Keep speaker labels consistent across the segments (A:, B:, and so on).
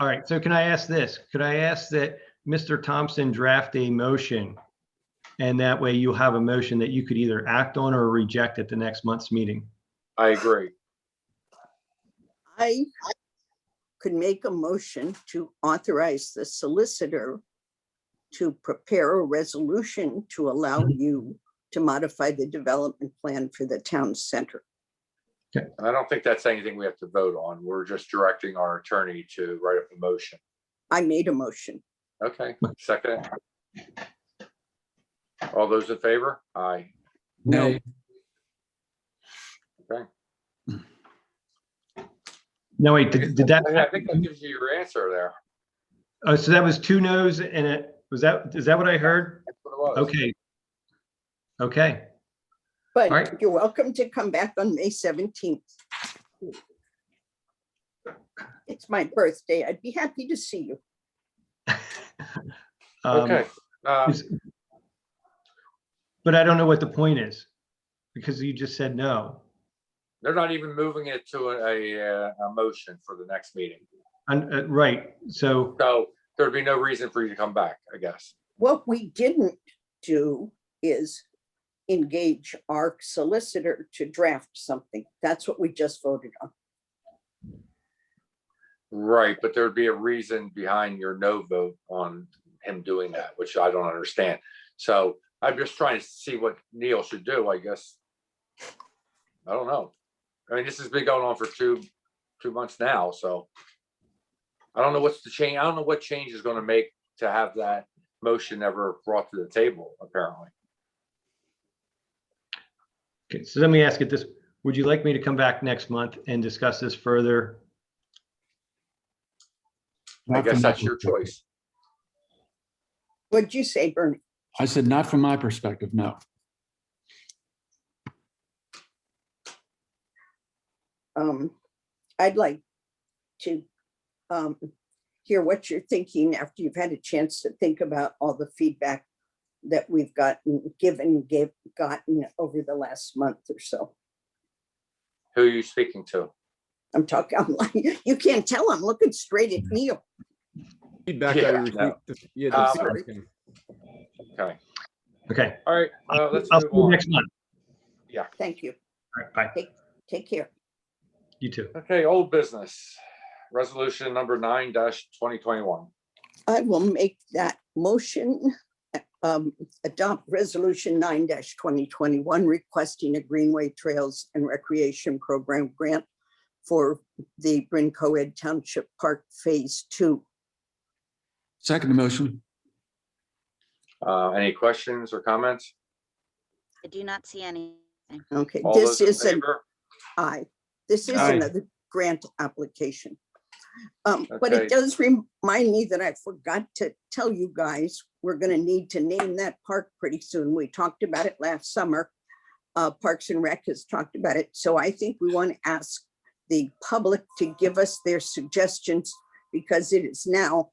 A: All right, so can I ask this? Could I ask that Mr. Thompson draft a motion? And that way you have a motion that you could either act on or reject at the next month's meeting.
B: I agree.
C: I could make a motion to authorize the solicitor to prepare a resolution to allow
A: Mm-hmm.
C: you to modify the development plan for the town center.
B: And I don't think that's anything we have to vote on. We're just directing our attorney to write up a motion.
C: I made a motion.
B: Okay, second. it. All those in favor? Aye.
D: No,
A: No, wait, did did that,
B: I think that gives you your answer there.
A: oh, so that was two noes and it, was that, is that what I heard?
B: That's what it was.
A: Okay. Okay, All right.
C: But you're welcome to come back on May seventeenth. It's my birthday. I'd be happy to see you.
A: um,
B: Okay. Uh,
A: is- But I don't know what the point is, because you just said no.
B: They're not even moving it to a, a, a motion for the next meeting.
A: And, uh, right, so,
B: So there'd be no reason for you to come back, I guess.
C: What we didn't do is engage our solicitor to draft something. That's what we just voted on.
B: Right, but there'd be a reason behind your no vote on him doing that, which I don't understand. So I'm just trying to see what Neil should do, I guess. I don't know. I mean, this has been going on for two, two months now, so. I don't know what's the change, I don't know what change is gonna make to have that motion ever brought to the table, apparently.
A: okay, so let me ask it this, would you like me to come back next month and discuss this further?
B: I
D: not
B: guess
D: from my
B: that's your
D: perspective.
B: choice.
C: What'd you say, Bernie?
D: I said, not from my perspective, no.
C: Um, I'd like to um, hear what you're thinking after you've had a chance to think about all the feedback that we've gotten, given, gave, gotten over the last month or so.
B: Who are you speaking to?
C: I'm talking, I'm like, you can't tell, I'm looking straight at Neil.
E: Feedback
B: Yeah,
E: I
B: no.
E: received. th- Yeah,
B: Um,
E: the feedback thing.
B: Okay,
A: Okay.
B: all right, uh, let's
A: I'll
B: move
A: see you
B: on.
A: next month.
C: Thank you.
A: All right, bye.
C: Take care.
A: You too.
B: Okay, old business, resolution number nine twenty twenty-one.
C: I will make that motion. um, Adopt Resolution nine twenty twenty-one requesting a Greenway Trails and Recreation Program grant for the Bryn Coed Township Park Phase Two.
D: Second motion,
B: Uh, any questions or comments?
F: I do not see any.
C: Okay,
B: All
C: this
B: those in
C: is an
B: favor?
C: I. This is
B: Aye.
C: another grant application. Um, but
B: Okay.
C: it does remind me that I forgot to tell you guys, we're gonna need to name that park pretty soon. We talked about it last summer. Uh, Parks and Rec has talked about it, so I think we want to ask the public to give us their suggestions because it is now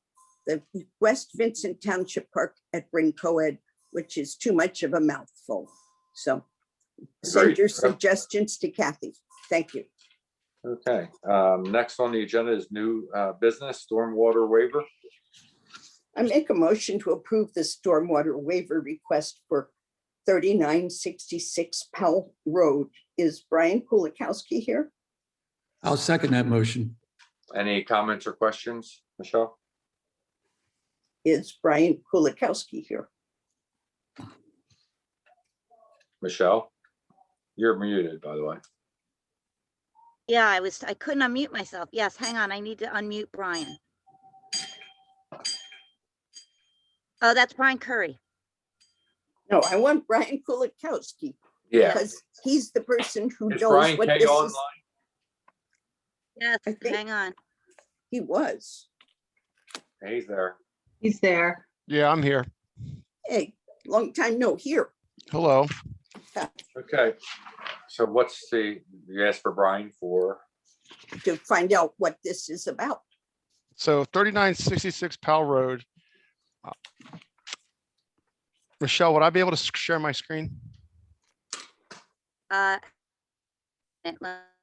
C: the West Vincent Township Park at Bryn Coed, which is too much of a mouthful. So send
B: Agreed.
C: your
B: Yep.
C: suggestions to Kathy. Thank you.
B: Okay, um, next on the agenda is new, uh, business stormwater waiver.
C: I make a motion to approve the stormwater waiver request for thirty-nine sixty-six Powell Road. Is Brian Kulikowski here?
D: I'll second that motion.
B: Any comments or questions, Michelle?
C: Is Brian Kulikowski here?
B: Michelle? You're muted, by the way.
F: Yeah, I was, I couldn't unmute myself. Yes, hang on, I need to unmute Brian. Oh, that's Brian Curry.
C: No, I want Brian Kulikowski
B: Yeah,
C: because he's the person who
B: is
C: knows
B: Brian
C: what
B: Kay
C: this
B: online?
C: is.
F: Yes,
C: I think-
F: hang on.
C: He was.
B: He's there.
G: He's there.
H: Yeah, I'm here.
C: Hey, long time no here.
H: Hello.
B: Okay, so what's the, you asked for Brian for,
C: to find out what this is about.
H: So thirty-nine sixty-six Powell Road. Uh, Michelle, would I be able to s- share my screen?
F: Uh, and let-